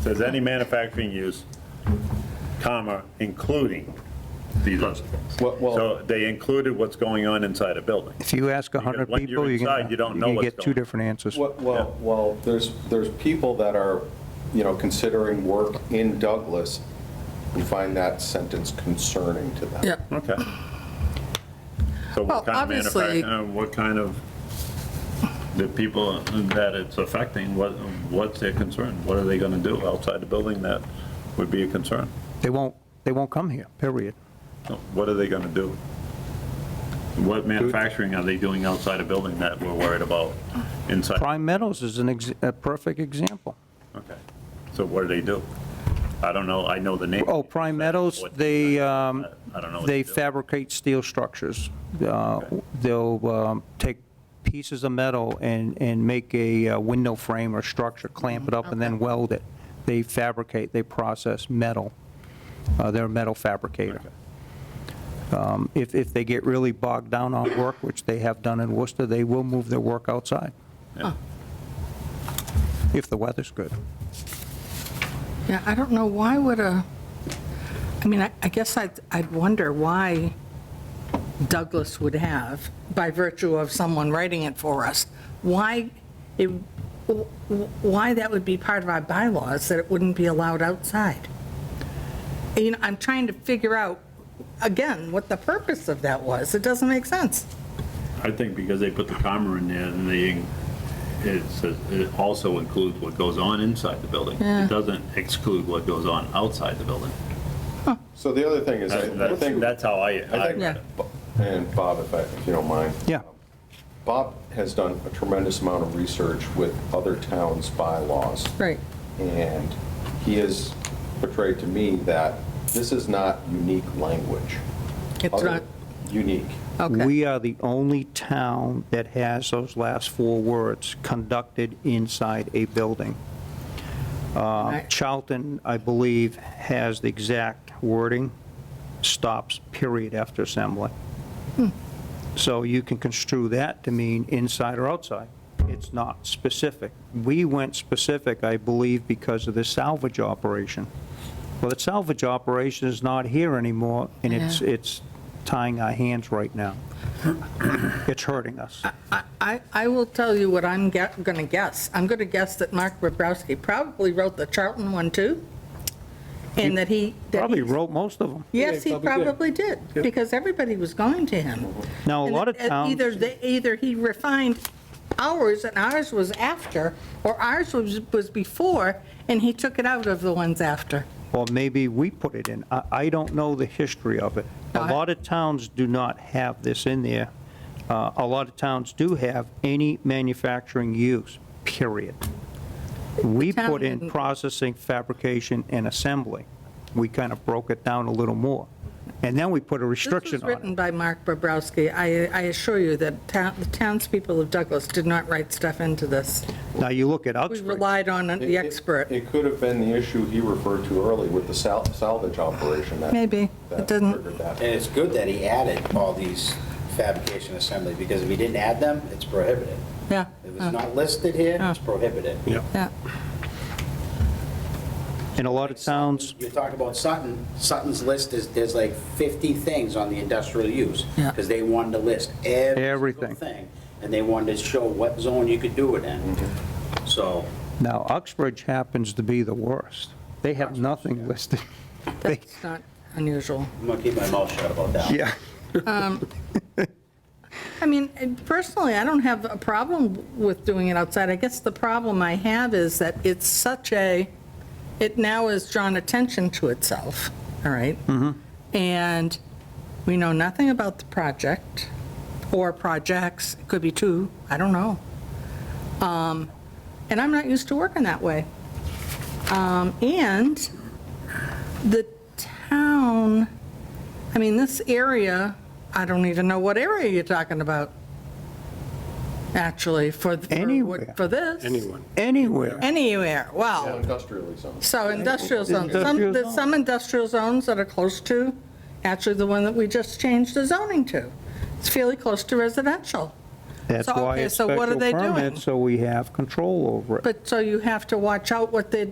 Says any manufacturing use, comma, including these restaurants. Well- well- So they included what's going on inside a building. If you ask 100 when you're people, you inside, can, you you don't know can what's get two going on. different answers. Well- Well, well, there's, there's people that are, you know, considering work in Douglas who find that sentence concerning to them. Yeah, Okay. So Well, what kind of obviously- manufacturing, uh, what kind of, the people that it's affecting, what, what's their concern? What are they gonna do outside the building that would be a concern? They won't, they won't come here, period. What are they gonna do? What manufacturing are they doing outside a building that we're worried about inside? Prime Meadows is an, ex- a perfect example. Okay, so what do they do? I don't know, I know the name. Oh, Prime Meadows, What- they, um, I don't know what they do. fabricate steel structures. Uh, Okay. They'll um, take pieces of metal and, and make a uh, window frame or structure, clamp it up, and then weld it. They fabricate, they process metal. Uh, They're a metal fabricator. Okay. Um, If, if they get really bogged down on work, which they have done in Worcester, they will move their work outside, Yeah. if the weather's good. yeah, I don't know, why would a, I mean, I I guess I'd, I'd wonder why Douglas would have, by virtue of someone writing it for us, why, it, why that would be part of our bylaws, that it wouldn't be allowed outside. You know, I'm trying to figure out, again, what the purpose of that was. It doesn't make sense. I think because they put the comma in there, and they, it says, it also includes what goes on inside the building. It doesn't exclude what goes on outside the building. So the other thing is, I I That's think, that's how I, I I- think- Yeah. and Bob, if I, if you don't mind. Um, Yeah. Bob has done a tremendous amount of research with other towns' bylaws. Right. And he has portrayed to me that this is not unique language. It's Other- not, Unique. okay, We are the only town that has those last four words, conducted inside a building. Uh, Right. Charlton, I believe, has the exact wording, stops period after assembly. Hmm. So you can construe that to mean inside or outside. It's not specific. We went specific, I believe, because of the salvage operation. Well, the salvage operation is not here anymore, and it's, Yeah. it's tying our hands right now. It's hurting us. I- I, I will tell you what I'm going to guess. I'm going to guess that Mark Bobrowski probably wrote the Charlton one too, and that he. that Probably he- wrote most of them. Yes, he probably did, because everybody was going to him. Now, a lot of And- and towns, Either, they- either he refined ours, and ours was after, or ours was, was before, and he took it out of the ones after. or maybe we put it in. I, I don't know the history of it. A No, I- lot of towns do not have this in there. Uh, A lot of towns do have any manufacturing use, period. We town put in didn't. processing, fabrication, and assembly. We kind of broke it down a little more. And then we put a This was restriction on it. written by Mark Bobrowski. I, I assure you that town- the townspeople of Douglas did not write stuff into this. Now, you look at We Uxbridge. relied on the It- it- expert. It could have been the issue he referred to early with the sal- salvage operation that. Maybe. that It doesn't- triggered that. And it's good that he added all these fabrication assembly, because if he didn't add them, it's prohibited. Yeah, Oh, If it's not listed here, it's prohibited. yeah. In a lot of towns, You talk about Sutton, Sutton's list is, there's like 50 things on the industrial use, Yeah. because they wanted to list every Everything. single thing, and they wanted to show what zone you could do it in. So, now Uxbridge happens to be the worst. They have nothing listed. They- That's not unusual. I'm gonna keep my mouth shut about that. Yeah. I mean, and personally, I don't have a problem with doing it outside. I guess the problem I have is that it's such a, it now has drawn attention to itself, all right? And we know nothing about the project or projects, it could be two, I don't know. Um, And I'm not used to working that way. Um, And the town, I mean, this area, I don't even know what area you're talking about, actually, for, for what- Anywhere. for this. Anywhere. Anywhere, Well, wow. Industrially zoned. So industrial zones, some, Industrial there's zone. some industrial zones that are close to, actually the one that we just changed the zoning to. It's fairly close to residential. That's So, why okay, it's so what are special they doing? permit, so we have control over it. But, so you have to watch out what they're